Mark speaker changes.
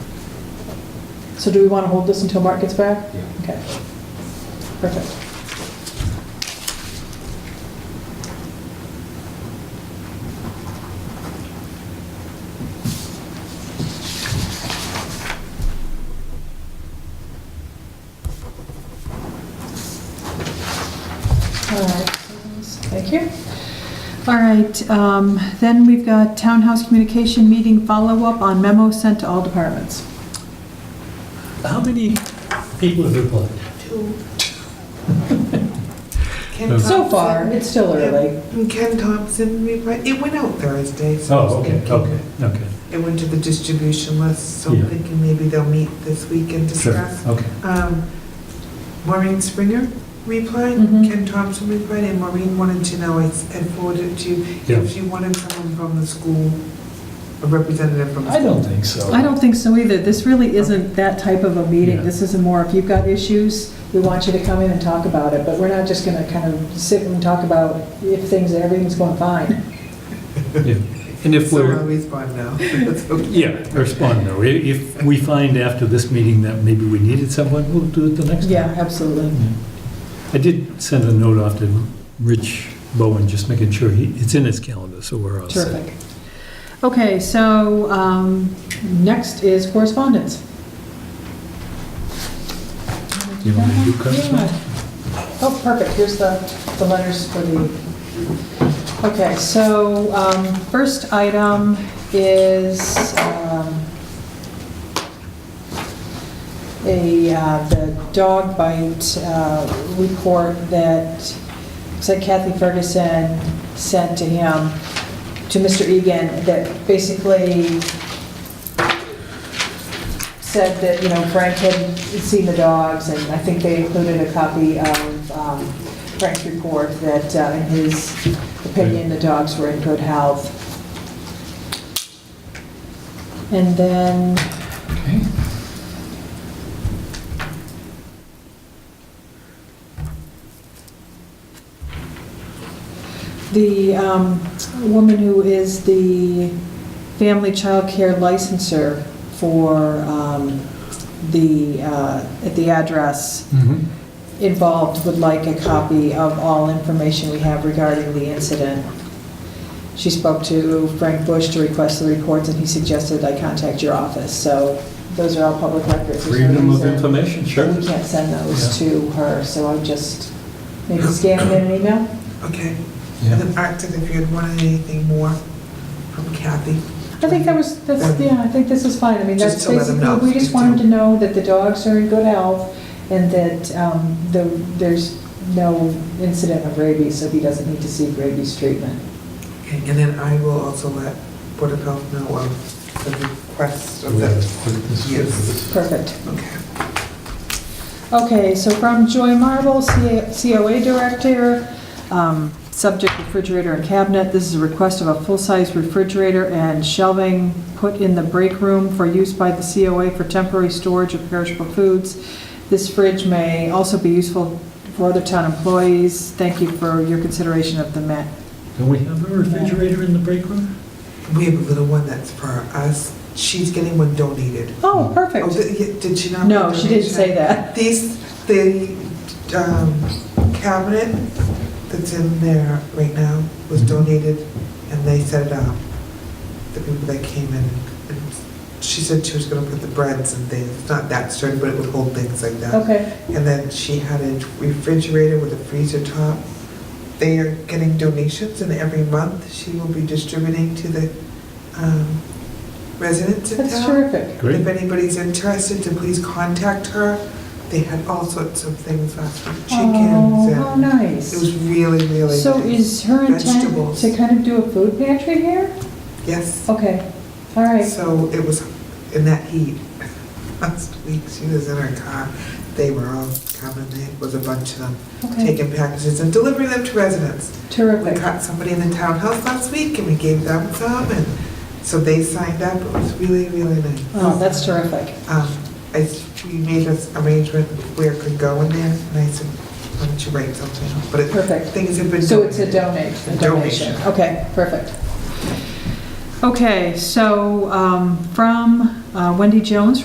Speaker 1: So do we want to hold this until Mark gets back?
Speaker 2: Yeah.
Speaker 1: Okay. Perfect. All right, thank you. All right, um, then we've got townhouse communication meeting follow-up on memo sent to all departments.
Speaker 2: How many people have replied?
Speaker 3: Two.
Speaker 1: So far, it's still early.
Speaker 3: And Ken Thompson replied, it went out Thursday, so. I was
Speaker 2: Oh, okay,
Speaker 3: thinking-
Speaker 2: okay, okay.
Speaker 3: It went to the distribution list, so I'm
Speaker 2: Yeah.
Speaker 3: thinking maybe they'll meet this week and
Speaker 2: Sure,
Speaker 3: discuss.
Speaker 2: okay.
Speaker 3: Um, Maureen Springer replied,
Speaker 1: Mhm.
Speaker 3: Ken Thompson replied, and Maureen wanted to know, I s- had forwarded to you,
Speaker 2: Yeah.
Speaker 3: if you wanted someone from the school, a representative from the
Speaker 2: I
Speaker 3: school.
Speaker 2: don't think so.
Speaker 1: I don't think so either. This really isn't that type of a meeting.
Speaker 2: Yeah.
Speaker 1: This is a more, if you've got issues, we want you to come in and talk about it, but we're not just gonna kind of sit and talk about if things, everything's going fine.
Speaker 2: Yeah. And if
Speaker 3: So I'll
Speaker 2: we're,
Speaker 3: respond now. That's okay.
Speaker 2: yeah, respond though. I- If we find after this meeting that maybe we needed someone, we'll do it the next time.
Speaker 1: Yeah, absolutely.
Speaker 2: I did send a note off to Rich Bowen, just making sure he, it's in his calendar, so we're all set.
Speaker 1: Terrific. Okay, so um, next is correspondence.
Speaker 2: You want me to do correspondence?
Speaker 1: Yeah. Oh, perfect, here's the, the letters for the, okay, so um, first item is um, a, uh, the dog bite uh, report that said Kathy Ferguson sent to him, to Mr. Egan, that basically said that, you know, Frank had seen the dogs, and I think they included a copy of um, Frank's report that, uh, in his opinion, the dogs were in good health. And then,
Speaker 2: Okay.
Speaker 1: the um, woman who is the family child care licenser for um, the, uh, at the address
Speaker 2: Mhm.
Speaker 1: involved would like a copy of all information we have regarding the incident. She spoke to Frank Bush to request the reports, and he suggested I contact your office. So those are all public records. There's no
Speaker 2: Freedom of
Speaker 1: reason
Speaker 2: information, sure.
Speaker 1: that We can't send those to her, so I just maybe scan them in an email.
Speaker 3: Okay.
Speaker 2: Yeah.
Speaker 3: And then Arctic, if you had wanted anything more from Kathy.
Speaker 1: I think that was, that's, yeah, I think this is fine. I mean, that's
Speaker 3: Just to let them
Speaker 1: basically,
Speaker 3: know.
Speaker 1: we just want them to know that the dogs are in good health and that um, the- there's no incident of rabies, so he doesn't need to seek rabies treatment.
Speaker 3: Okay, And then I will also let Board of Health know of the request of that. Yes.
Speaker 1: Perfect.
Speaker 3: Okay.
Speaker 1: Okay, so from Joy Marble, CA COA Director, um, subject refrigerator and cabinet. This is a request of a full-size refrigerator and shelving put in the break room for use by the COA for temporary storage of perishable foods. This fridge may also be useful for other town employees. Thank you for your consideration of the ma,
Speaker 2: Don't we have a refrigerator in the break room?
Speaker 3: We have a little one that's for us. She's getting one donated.
Speaker 1: oh,
Speaker 3: Oh,
Speaker 1: perfect.
Speaker 3: did yeah, did she not?
Speaker 1: No, she didn't say that.
Speaker 3: These, the um, cabinet that's in there right now was
Speaker 2: Mhm.
Speaker 3: donated, and they set it up. The people that came in, and she said she was gonna put the breads and things, not that sturdy, but it would hold things like that.
Speaker 1: Okay,
Speaker 3: And then she had a refrigerator with a freezer top. They are getting donations, and every month she will be distributing to the um, residents in town.
Speaker 1: that's terrific.
Speaker 2: Great.
Speaker 3: If anybody's interested, to please contact her. They had all sorts of things last week, chickens,
Speaker 1: Oh, how
Speaker 3: and it was
Speaker 1: nice.
Speaker 3: really, really
Speaker 1: So
Speaker 3: nice.
Speaker 1: is her intent
Speaker 3: Vegetables.
Speaker 1: to kind of do a food pantry here?
Speaker 3: Yes,
Speaker 1: Okay, all right.
Speaker 3: so it was in that heat. Last week, she was in her car. They were all coming, there was a bunch of them,
Speaker 1: Okay,
Speaker 3: taking packages and delivering them to residents. We
Speaker 1: terrific.
Speaker 3: caught somebody in the townhouse last week, and we gave them some, and so they signed up. It was really, really nice.
Speaker 1: Oh, that's terrific.
Speaker 3: Um, I, s- we made this arrangement where it could go in there, and I said, why don't you write something up? But it-
Speaker 1: Perfect.
Speaker 3: things have been.
Speaker 1: So it's a donate, a donation.
Speaker 3: Donation.
Speaker 1: Okay, perfect. Okay, so um, from uh, Wendy Jones